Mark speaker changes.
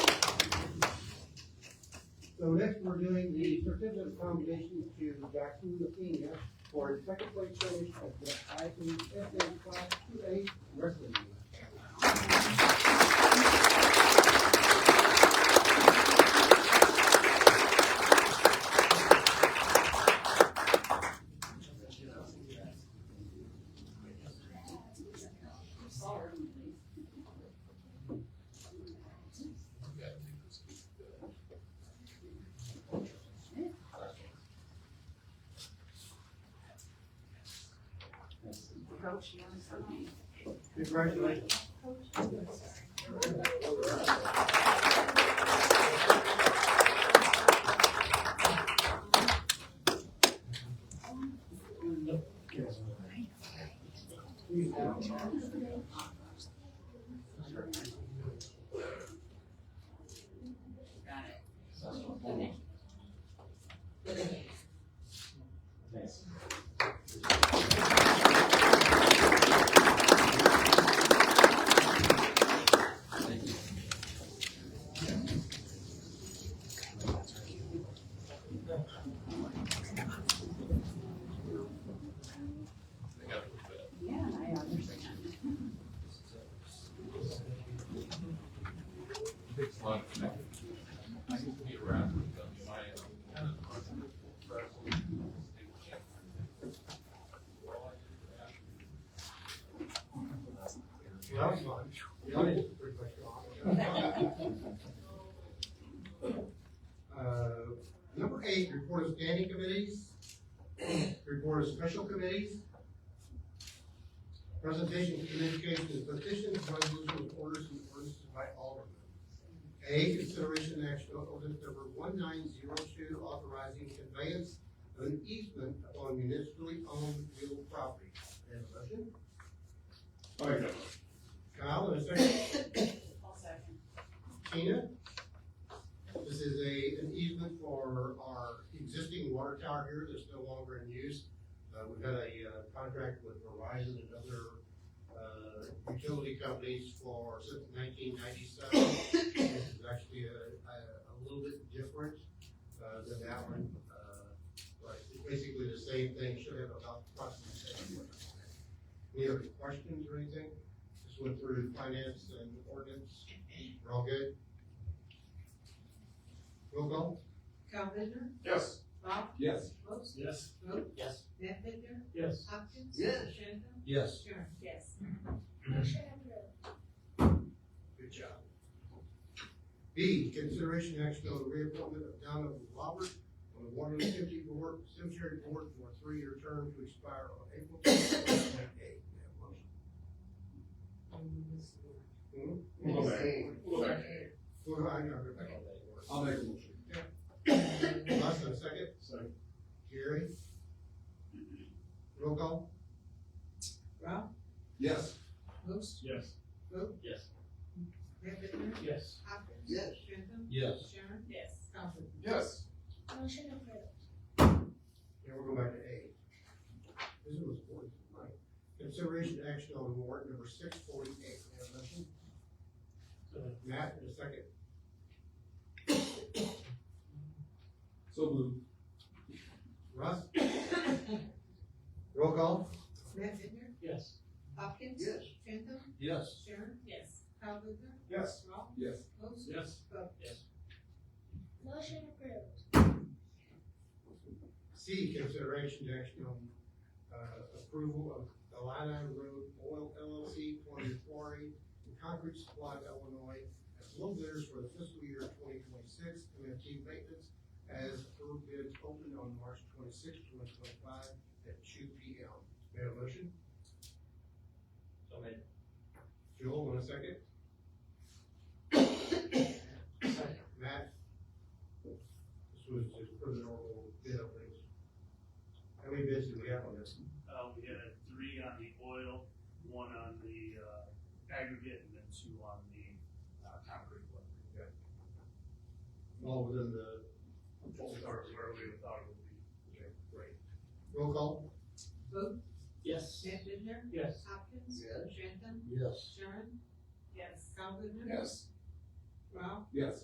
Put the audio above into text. Speaker 1: So next, we're doing the certificate of commendation to Jackson Lefina for his second place finish at the IPSA Class Two A Wrestling.
Speaker 2: Coach, you want to sign?
Speaker 1: Congratulations.
Speaker 2: Got it. Yeah, I understand.
Speaker 3: Takes a lot of effort. I used to be around with them, my, uh, kind of, uh, wrestlers, they were champions. Well, I did that.
Speaker 1: That was fun. The audience was pretty much gone. Uh, Number eight, report of standing committees, report of special committees, presentation, communications, petitions, resolutions, orders, and ordinances by Alderman. A, consideration and action on ordinance number one nine zero two, authorizing conveyance of an easement upon municipally owned real property. Any motion? Kyle, and a second. Tina? This is a, an easement for our existing water tower here that's no longer in use. Uh, we've had a, uh, contract with Verizon and other, uh, utility companies for, since nineteen ninety-seven. This is actually a, a, a little bit different, uh, than that one, uh, but it's basically the same thing, should have about approximately same. word. Any other questions or anything? Just went through finance and ordinance, we're all good? Roll call?
Speaker 4: Cal Bitner,
Speaker 3: Yes.
Speaker 4: Bob
Speaker 3: Yes.
Speaker 4: Brooks,
Speaker 5: Yes.
Speaker 4: Vogt,
Speaker 1: Yes.
Speaker 4: Matt Bitner,
Speaker 5: Yes.
Speaker 4: Hopkins.
Speaker 1: Yes.
Speaker 4: Shannon,
Speaker 1: Yes.
Speaker 4: Sharon.
Speaker 2: Yes.
Speaker 1: Good job. B, consideration action on the reappointment of Donna Robert on the Water and Cemetery Board, Cemetery Board for a three-year term to expire on April 2028. May I have a motion?
Speaker 5: Hmm?
Speaker 3: We'll go back.
Speaker 1: We'll go back. Well, I know, we're back on that.
Speaker 5: I'll make a motion.
Speaker 1: Last and second,
Speaker 5: Second.
Speaker 1: Gary? Roll call?
Speaker 4: Rob,
Speaker 5: Yes.
Speaker 4: Brooks,
Speaker 5: Yes.
Speaker 4: Vogt,
Speaker 5: Yes.
Speaker 4: Matt Bitner,
Speaker 5: Yes.
Speaker 4: Hopkins.
Speaker 1: Yes.
Speaker 4: Shannon,
Speaker 5: Yes.
Speaker 4: Sharon,
Speaker 2: Yes.
Speaker 4: Cal Bitner.
Speaker 5: Yes.
Speaker 6: Motion approved.
Speaker 1: And we'll go back to A. This one was important tonight. Consideration action on warrant number six forty-eight. May I have a motion?
Speaker 5: Second.
Speaker 1: Matt, in a second.
Speaker 5: So moved.
Speaker 1: Russ? Roll call?
Speaker 4: Matt Bitner,
Speaker 5: Yes.
Speaker 4: Hopkins. Shannon,
Speaker 5: Yes.
Speaker 4: Sharon,
Speaker 2: Yes.
Speaker 4: Cal Bitner,
Speaker 5: Yes.
Speaker 4: Rob,
Speaker 5: Yes.
Speaker 4: Brooks,
Speaker 5: Yes.
Speaker 4: Vogt.
Speaker 5: Yes.
Speaker 6: Motion approved.
Speaker 1: C, consideration action on, uh, approval of Alana Road Oil LLC for the quarry and concrete supply of Illinois as low bidders for the fiscal year twenty twenty-six, MFT maintenance as approved bids opened on March twenty-sixth, twenty twenty-five at two P M. May I have a motion?
Speaker 5: So made.
Speaker 1: Joel, want a second? Matt? This was just for the normal bid openings. How many bids do we have on this?
Speaker 7: Uh, we had three on the oil, one on the, uh, aggregate, and then two on the, uh, concrete one.
Speaker 1: All within the
Speaker 7: What we thought, where we thought it would be.
Speaker 1: Okay, great. Roll call?
Speaker 4: Vogt,
Speaker 5: Yes.
Speaker 4: Matt Bitner,
Speaker 5: Yes.
Speaker 4: Hopkins.
Speaker 1: Yes.
Speaker 4: Shannon,
Speaker 1: Yes.
Speaker 4: Sharon,
Speaker 2: Yes.
Speaker 4: Cal Bitner.
Speaker 5: Yes.
Speaker 4: Rob,
Speaker 5: Yes.